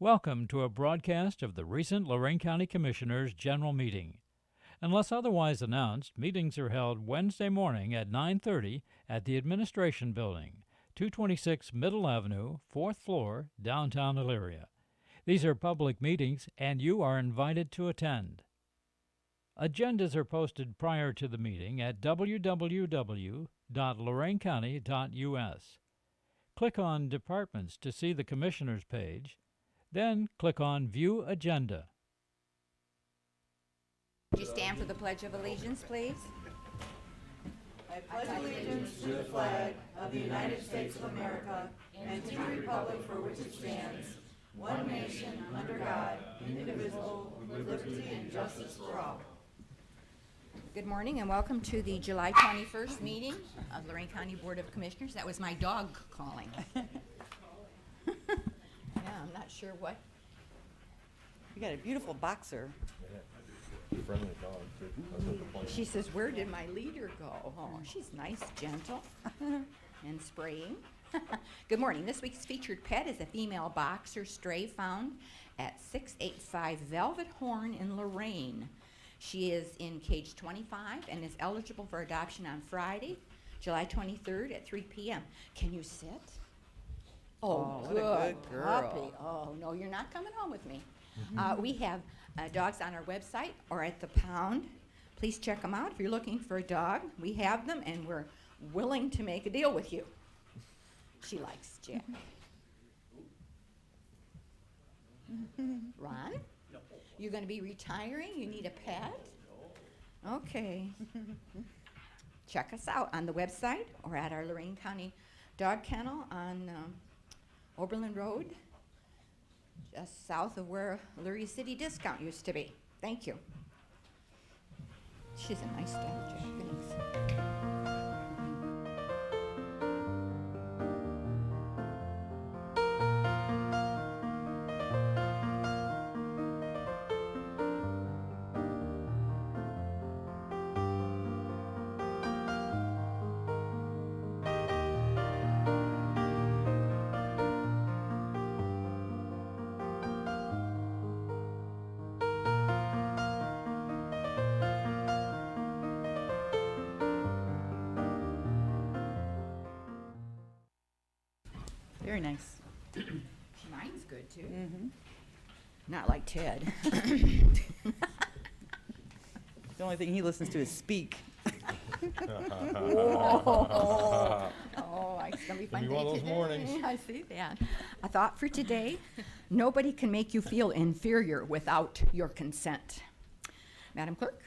Welcome to a broadcast of the recent Lorraine County Commissioners' General Meeting. Unless otherwise announced, meetings are held Wednesday morning at 9:30 at the Administration Building, 226 Middle Avenue, 4th floor, downtown Elyria. These are public meetings and you are invited to attend. Agendas are posted prior to the meeting at www.loraincounty.us. Click on Departments to see the Commissioners page, then click on View Agenda. Would you stand for the Pledge of Allegiance, please? Good morning and welcome to the July 21st meeting of Lorraine County Board of Commissioners. That was my dog calling. Yeah, I'm not sure what, You got a beautiful boxer. friendly dog, too. That's what the point she says, where did my leader go? Oh, she's nice, gentle, and spraying. Good morning. This week's featured pet is a female boxer stray found at 685 Velvet Horn in Lorraine. She is in cage 25 and is eligible for adoption on Friday, July 23rd at 3 p.m. Can you sit? Oh, Oh, what good, a good puppy. girl. Mm-hmm. Oh, no, you're not coming home with me. Uh, we have uh, dogs on our website or at the pound. Please check them out. If you're looking for a dog, we have them and we're willing to make a deal with you. She likes Jack. Mm-hmm. Ron? You're going to be retiring? You need a pet? Okay. Check us out on the website or at our Lorraine County Dog Kennel on um, Oberlin Road, just south of where Lurie City Discount used to be. Thank you. She's a nice dog, Jack. Thanks. Very nice. Mine's good too. Not like Ted. The only thing he listens to is speak. Oh, I- it's gonna be fun be day one of those today. mornings. I see that. A thought for today, nobody can make you feel inferior without your consent. Madam Clerk,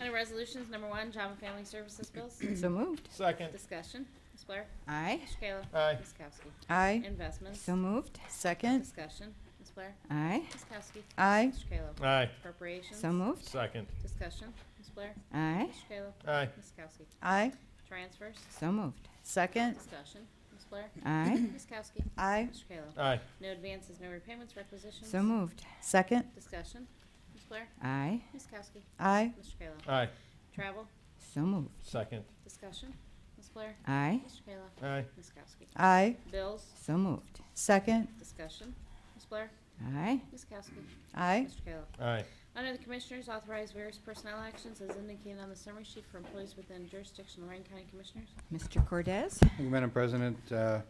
Under Resolutions Number One, Job and Family Services Bills. so moved. Second. Discussion. Ms. Blair. Mm. Aye, Mr. Kayla. Aye. Ms. Kowski. Aye. Investments. so moved. Second. Discussion. Ms. Blair. Aye, Ms. Kowski. Aye. Mr. Kayla. Aye. Appropriations. so moved. Second. Discussion. Ms. Blair. Aye, Mr. Kayla. Aye. Ms. Kowski. Aye. Transfers. so moved. Second. Discussion. Ms. Blair. Aye, Ms. Kowski. Aye. Mr. Kayla. Aye. No advances, no repayments, requisitions. so moved. Second. Discussion. Ms. Blair. Aye, Ms. Kowski. Aye. Mr. Kayla. Aye. Travel. so moved. Second. Discussion. Ms. Blair. Aye, Mr. Kayla. Aye. Ms. Kowski. Aye. Bills. so moved. Second. Discussion. Ms. Blair. Aye, Ms. Kowski. Aye. Mr. Kayla. Aye. Under the Commissioners, authorize various personnel actions as indicated on the summary sheet for employees within jurisdiction of Lorraine County Commissioners. Mr. Cordez, Thank you, Madam President, Uh,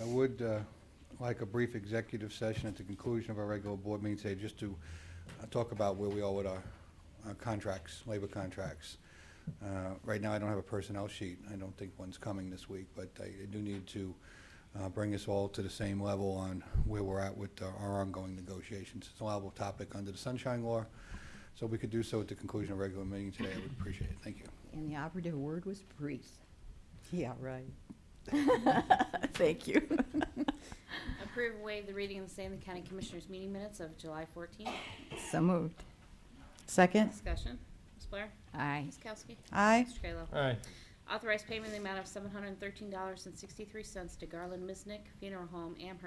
I would uh, like a brief executive session at the conclusion of our regular board meeting today, just to uh, talk about where we are with our our contracts, labor contracts. Uh, Right now, I don't have a personnel sheet. I don't think one's coming this week, but I I do need to uh, bring us all to the same level on where we're at with our- our ongoing negotiations. It's a liable topic under the Sunshine Law, so if we could do so at the conclusion of our regular meeting today, I would appreciate it. Thank you. and the operative word was brief. Yeah, right. Thank you. Approve and waive the reading and stay in the County Commissioners meeting minutes of July 14th. So moved. Second. Discussion. Ms. Blair. Aye, Ms. Kowski. Aye. Mr. Kayla. Aye. Authorize payment in the amount of $713.63 to Garland Misnick Funeral Home, Amherst,